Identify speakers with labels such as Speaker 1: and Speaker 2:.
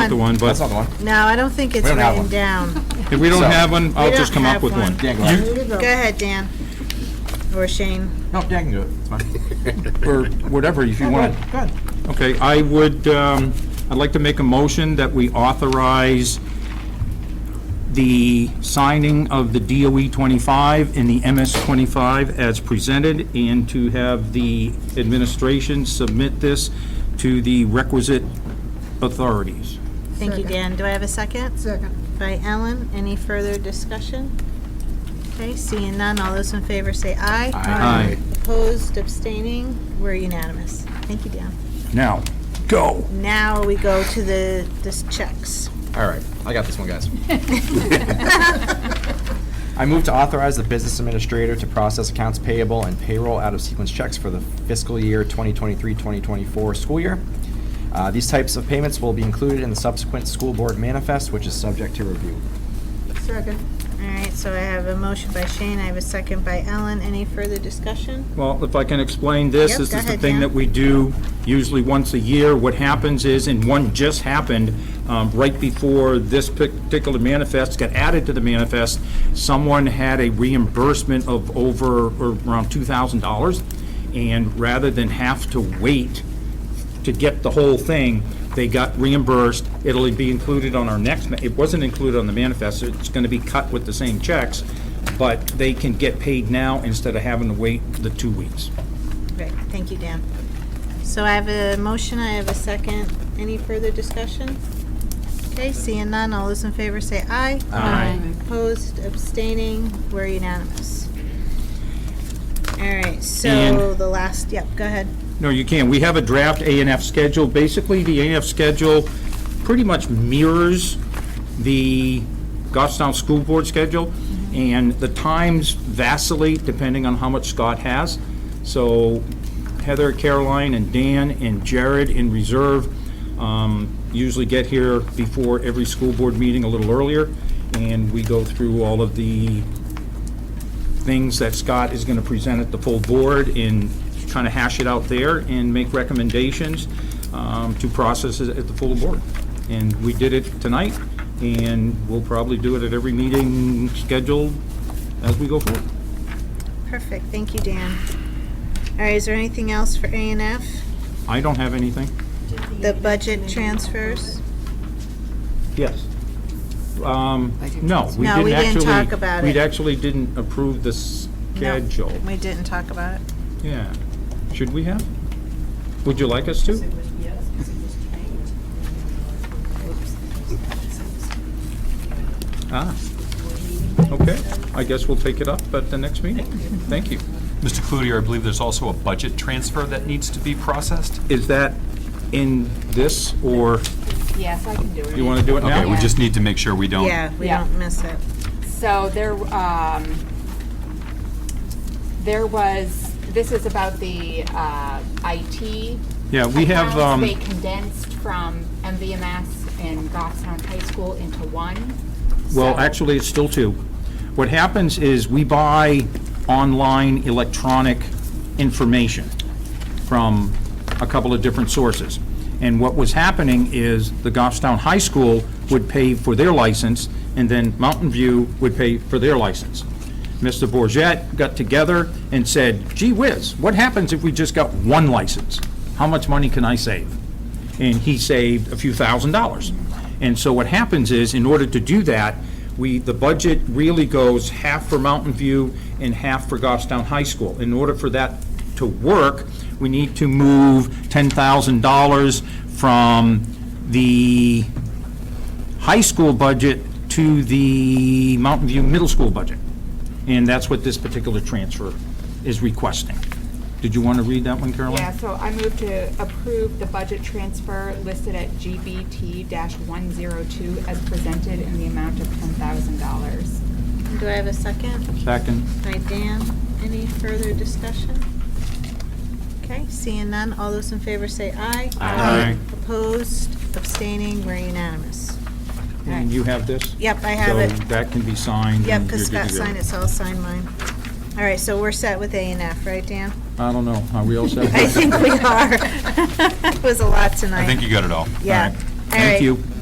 Speaker 1: not the one,
Speaker 2: That's not
Speaker 1: but
Speaker 2: the one.
Speaker 3: No, I don't think it's
Speaker 2: We don't have
Speaker 3: written
Speaker 2: one.
Speaker 3: down.
Speaker 1: if we don't
Speaker 2: So-
Speaker 1: have one, I'll
Speaker 3: We
Speaker 1: just
Speaker 3: don't
Speaker 1: come up
Speaker 3: have
Speaker 1: with
Speaker 3: one.
Speaker 1: one.
Speaker 2: Dan, go ahead.
Speaker 3: Go ahead, Dan. Or Shane.
Speaker 2: No, Dan can do it. It's fine.
Speaker 1: Or whatever, if you
Speaker 2: Go
Speaker 1: want.
Speaker 2: ahead. Go ahead.
Speaker 1: Okay, I would, um, I'd like to make a motion that we authorize the signing of the DOE 25 and the MS 25 as presented, and to have the administration submit this to the requisite authorities.
Speaker 3: Thank you, Dan. Do I have a second?
Speaker 4: Second.
Speaker 3: By Ellen. Any further discussion? Okay, seeing none, all those in favor say aye.
Speaker 1: Aye.
Speaker 3: Opposed, abstaining, we're unanimous. Thank you, Dan.
Speaker 1: Now, go.
Speaker 3: Now we go to the, this checks.
Speaker 2: All right, I got this one, guys. I move to authorize the business administrator to process accounts payable and payroll out of sequence checks for the fiscal year 2023-2024 school year. Uh, These types of payments will be included in the subsequent school board manifest, which is subject to review.
Speaker 4: Second.
Speaker 3: All right, so I have a motion by Shane, I have a second by Ellen. Any further discussion?
Speaker 1: Well, if I can explain this,
Speaker 3: Yep,
Speaker 1: this
Speaker 3: go
Speaker 1: is the
Speaker 3: ahead,
Speaker 1: thing
Speaker 3: Dan.
Speaker 1: that we do usually once a year. What happens is, and one just happened, um, right before this particular manifest got added to the manifest, someone had a reimbursement of over, or around $2,000, and rather than have to wait to get the whole thing, they got reimbursed. It'll be included on our next, ma- it wasn't included on the manifest, it's gonna be cut with the same checks, but they can get paid now instead of having to wait the two weeks.
Speaker 3: Right, thank you, Dan. So I have a motion, I have a second. Any further discussion? Okay, seeing none, all those in favor say aye.
Speaker 1: Aye.
Speaker 3: Opposed, abstaining, we're unanimous. All right, so
Speaker 1: And-
Speaker 3: the last, yep, go ahead.
Speaker 1: No, you can. We have a draft A and F schedule. Basically, the A and F schedule pretty much mirrors the Goffstown School Board schedule, and the times vacillate depending on how much Scott has. So Heather, Caroline, and Dan, and Jared in reserve um, usually get here before every school board meeting a little earlier, and we go through all of the things that Scott is going to present at the full board and kind of hash it out there and make recommendations um, to process it at the full board. And we did it tonight, and we'll probably do it at every meeting scheduled as we go forward.
Speaker 3: Perfect, thank you, Dan. All right, is there anything else for A and F?
Speaker 1: I don't have anything.
Speaker 3: The budget transfers?
Speaker 1: Yes. Um, No, we
Speaker 3: No, we
Speaker 1: didn't actually.
Speaker 3: didn't talk about
Speaker 1: We
Speaker 3: it.
Speaker 1: actually didn't approve the schedule.
Speaker 3: No, We didn't talk about it.
Speaker 1: Yeah. Should we have? Would you like us to? Ah, okay. I guess we'll take it up at the next meeting. Thank you.
Speaker 5: Mr. Cloutier, I believe there's also a budget transfer that needs to be processed?
Speaker 1: Is that in this, or
Speaker 6: Yes, I can do it.
Speaker 1: you want to do it now?
Speaker 5: Okay, we just need to make sure we don't.
Speaker 3: Yeah, we
Speaker 6: Yeah.
Speaker 3: don't miss it.
Speaker 6: So there, um, there was, this is about the, uh, IT.
Speaker 1: Yeah, we have,
Speaker 6: accounts.
Speaker 1: um,
Speaker 6: They condensed from MVMS and Goffstown High School into one.
Speaker 1: Well,
Speaker 6: So-
Speaker 1: actually, it's still two. What happens is we buy online electronic information from a couple of different sources. And what was happening is the Goffstown High School would pay for their license, and then Mountain View would pay for their license. Mr. Bourget got together and said, gee whiz, what happens if we just got one license? How much money can I save? and he saved a few thousand dollars. And so what happens is, in order to do that, we, the budget really goes half for Mountain View and half for Goffstown High School. In order for that to work, we need to move ten thousand dollars from the high school budget to the Mountain View Middle School budget. And that's what this particular transfer is requesting. Did you want to read that one, Caroline?
Speaker 6: Yeah, so I move to approve the budget transfer listed at GBT one zero two as presented in the amount of ten thousand dollars.
Speaker 3: Do I have a second?
Speaker 1: Second.
Speaker 3: By Dan, any further discussion? Okay, seeing none, all those in favor say aye.
Speaker 1: Aye. Aye.
Speaker 3: Opposed, abstaining, we're unanimous.
Speaker 1: And you have this?
Speaker 3: Yep, I have
Speaker 1: So
Speaker 3: it.
Speaker 1: that can be signed.
Speaker 3: Yep,
Speaker 1: and
Speaker 3: because
Speaker 1: you're
Speaker 3: Scott
Speaker 1: good to go.
Speaker 3: signed it, so I'll sign mine. All right, so we're set with A and F, right, Dan?
Speaker 1: I don't know, are we all set?
Speaker 3: I think we are. It was a lot tonight.
Speaker 5: I think you got it all.
Speaker 3: Yeah.
Speaker 1: All right.
Speaker 3: All
Speaker 1: Thank
Speaker 3: right.
Speaker 1: you.